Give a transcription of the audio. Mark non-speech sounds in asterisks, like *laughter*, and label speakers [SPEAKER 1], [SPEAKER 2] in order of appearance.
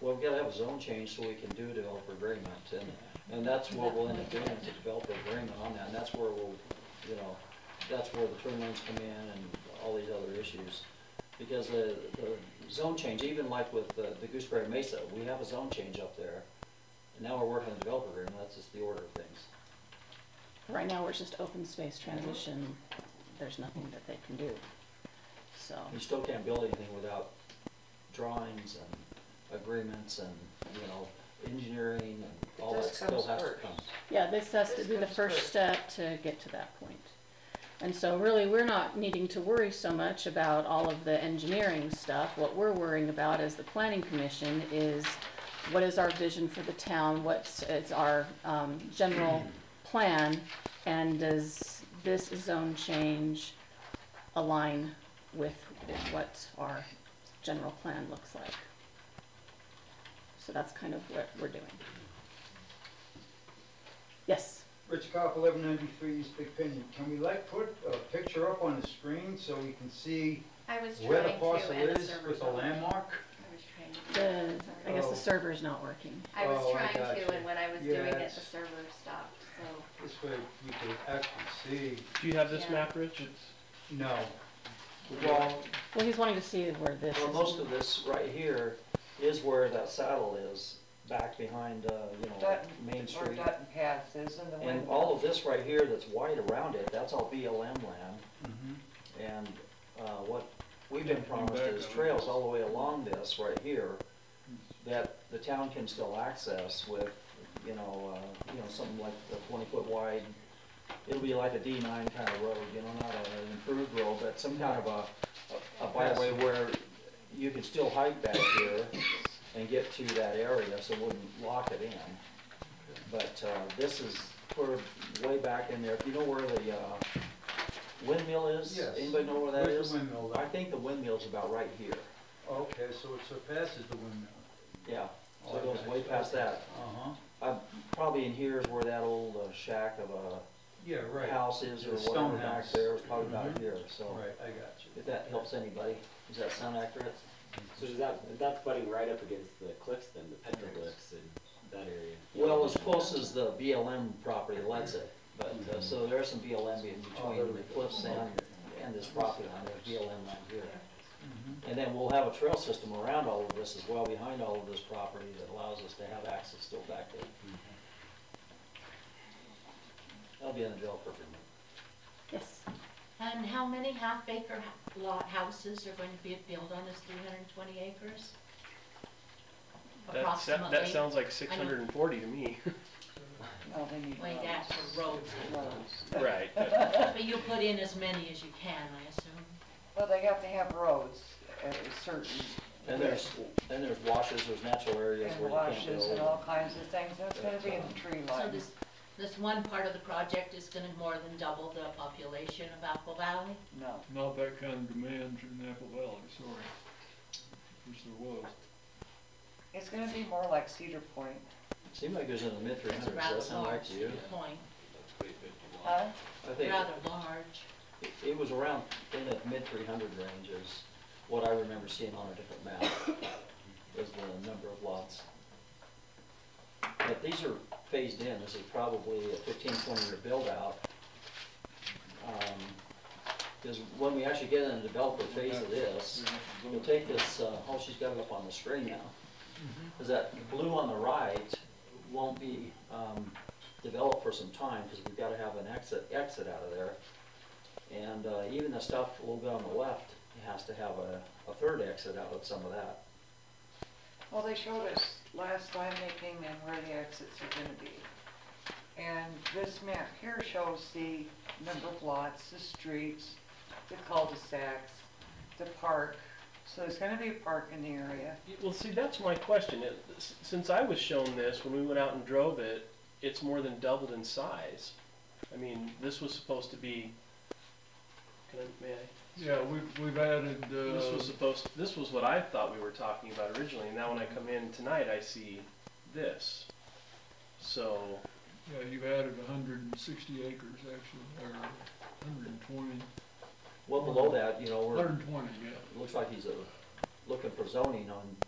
[SPEAKER 1] Well, we've gotta have a zone change so we can do developer agreement, and, and that's what we'll end up doing, is a developer agreement on that, and that's where we'll, you know, that's where the turn lanes come in and all these other issues. Because the, the zone change, even like with the the Gooseberry Mesa, we have a zone change up there, and now we're working on the developer agreement, that's just the order of things.
[SPEAKER 2] Right now, we're just open space transition, there's nothing that they can do, so.
[SPEAKER 1] You still can't build anything without drawings and agreements and, you know, engineering and all that
[SPEAKER 3] This
[SPEAKER 1] still
[SPEAKER 3] comes
[SPEAKER 1] has to
[SPEAKER 3] first.
[SPEAKER 1] come.
[SPEAKER 2] Yeah, this has to
[SPEAKER 3] This
[SPEAKER 2] be the
[SPEAKER 3] comes
[SPEAKER 2] first
[SPEAKER 3] first.
[SPEAKER 2] step to get to that point. And so really, we're not needing to worry so much about all of the engineering stuff. What we're worrying about as the planning commission is what is our vision for the town? What's, it's our, um, general plan? And does this zone change align with what our general plan looks like? So that's kind of what we're doing. Yes?
[SPEAKER 4] Rich Cop, eleven ninety-three East Big Pinion. Can we like put a picture up on the screen so we can see
[SPEAKER 5] I was
[SPEAKER 4] where the
[SPEAKER 5] trying to,
[SPEAKER 4] parcel
[SPEAKER 5] and the
[SPEAKER 4] is
[SPEAKER 5] server's
[SPEAKER 4] with a
[SPEAKER 5] not working.
[SPEAKER 4] landmark?
[SPEAKER 5] I was trying to. do
[SPEAKER 2] The,
[SPEAKER 5] that,
[SPEAKER 2] I
[SPEAKER 5] sorry.
[SPEAKER 2] guess the
[SPEAKER 4] Oh.
[SPEAKER 2] server's not working.
[SPEAKER 5] I was
[SPEAKER 4] Oh, I
[SPEAKER 5] trying to,
[SPEAKER 4] gotcha.
[SPEAKER 5] and when I was
[SPEAKER 4] Yeah,
[SPEAKER 5] doing it,
[SPEAKER 4] it's-
[SPEAKER 5] the server stopped, so.
[SPEAKER 4] This way we could actually see.
[SPEAKER 6] Do you have this
[SPEAKER 5] Yeah.
[SPEAKER 6] map, Rich? It's,
[SPEAKER 4] No.
[SPEAKER 1] Well,
[SPEAKER 2] Well, he's wanting to see where this
[SPEAKER 1] well,
[SPEAKER 2] is.
[SPEAKER 1] most of this right here is where that saddle is, back behind, uh, you know,
[SPEAKER 3] Dutton,
[SPEAKER 1] Main
[SPEAKER 3] or
[SPEAKER 1] Street.
[SPEAKER 3] Dutton Pass is in the window.
[SPEAKER 1] And all of this right here that's wide around it, that's all BLM land,
[SPEAKER 4] Mhm.
[SPEAKER 1] and, uh, what we've been promised is trails all the way along this right here that the town can still access with, you know, uh, you know, something like the twenty foot wide. It'll be like a D nine kind of road, you know, not an improved road, but some kind of a, a byway where you can still hike back here and get to that area, so it wouldn't lock it in. But, uh, this is sort of way back in there. If you know where the, uh, windmill is?
[SPEAKER 4] Yes.
[SPEAKER 1] Anybody know where that
[SPEAKER 4] Where's
[SPEAKER 1] is?
[SPEAKER 4] the windmill
[SPEAKER 1] I
[SPEAKER 4] though?
[SPEAKER 1] think the windmill's about right here.
[SPEAKER 4] Okay, so it surpasses the windmill.
[SPEAKER 1] Yeah, so it goes way past that.
[SPEAKER 4] Uh-huh.
[SPEAKER 1] Uh, probably in here is where that old uh, shack of
[SPEAKER 4] Yeah,
[SPEAKER 1] a
[SPEAKER 4] right.
[SPEAKER 1] house is or
[SPEAKER 4] The stone
[SPEAKER 1] whatever back
[SPEAKER 4] house.
[SPEAKER 1] there, it's probably about
[SPEAKER 4] Mhm.
[SPEAKER 1] here, so.
[SPEAKER 4] Right, I got you.
[SPEAKER 1] If that helps anybody, does that sound accurate?
[SPEAKER 7] So does that, that's butting right up against the cliffs then, the petroglyphs and that area?
[SPEAKER 1] Well, as close as the BLM property lets it, but, uh, so there's some BLM in
[SPEAKER 4] Oh,
[SPEAKER 1] between the cliffs and, and this property line, there's BLM land here.
[SPEAKER 4] Mhm.
[SPEAKER 1] And then we'll have a trail system around all of this as well, behind all of this property that allows us to have access still back there. That'll be in the developer agreement.
[SPEAKER 2] Yes.
[SPEAKER 8] And how many half-acre h- lot houses are going to be built on this three hundred and twenty acres?
[SPEAKER 6] that, sa- that
[SPEAKER 8] Approximately,
[SPEAKER 6] sounds like six hundred and forty to me. *laughs*
[SPEAKER 3] No, they need
[SPEAKER 8] way
[SPEAKER 3] roads.
[SPEAKER 8] that's the roads,
[SPEAKER 3] Roads.
[SPEAKER 6] Right. but-
[SPEAKER 8] but you'll put in as many as you can, I assume.
[SPEAKER 3] Well, they have to have roads at a certain.
[SPEAKER 1] And there's, and there's washes, there's natural areas
[SPEAKER 3] And
[SPEAKER 1] where you can't
[SPEAKER 3] washes and all
[SPEAKER 1] build.
[SPEAKER 3] kinds of things, that's gonna be in the tree
[SPEAKER 8] So
[SPEAKER 3] line.
[SPEAKER 8] this, this one part of the project is gonna more than double the population of Apple Valley?
[SPEAKER 3] No,
[SPEAKER 9] Not that kind of demand in Apple Valley, sorry. Wish there was.
[SPEAKER 3] it's gonna be more like Cedar Point,
[SPEAKER 1] Seemed like it was in the mid three hundreds,
[SPEAKER 8] It's
[SPEAKER 1] does
[SPEAKER 8] rather
[SPEAKER 1] that sound
[SPEAKER 8] large,
[SPEAKER 1] right to
[SPEAKER 8] to your
[SPEAKER 1] you?
[SPEAKER 8] point,
[SPEAKER 3] huh?
[SPEAKER 1] I think
[SPEAKER 8] rather large.
[SPEAKER 1] it- it was around in the mid three hundred range is what I remember seeing on a different map, was the number of lots. But these are phased in, this is probably a 15-20 year build out. Because when we actually get in the developer phase of this, We'll take this, uh, oh, she's got it up on the screen now. Is that blue on the right won't be, um, developed for some time, because we've gotta have an exit, exit out of there. And, uh, even the stuff a little bit on the left has to have a, a third exit out of some of that.
[SPEAKER 3] Well, they showed us last time they came in where the exits are gonna be. And this map here shows the number of lots, the streets, the cul-de-sacs, the park. So there's gonna be a park in the area.
[SPEAKER 6] Well, see, that's my question. It- s- Since I was shown this, when we went out and drove it, it's more than doubled in size. I mean, this was supposed to be, can I, may I?
[SPEAKER 9] Yeah, we've, we've added,
[SPEAKER 6] This was
[SPEAKER 9] uh,
[SPEAKER 6] supposed, this was what I thought we were talking about originally, and now when I come in tonight, I see this. So,
[SPEAKER 9] yeah, you've added hundred and sixty acres actually, or hundred and twenty.
[SPEAKER 1] Well, below that, you know, we're,
[SPEAKER 9] Hundred and twenty, yeah.
[SPEAKER 1] it looks like he's, uh, looking for zoning on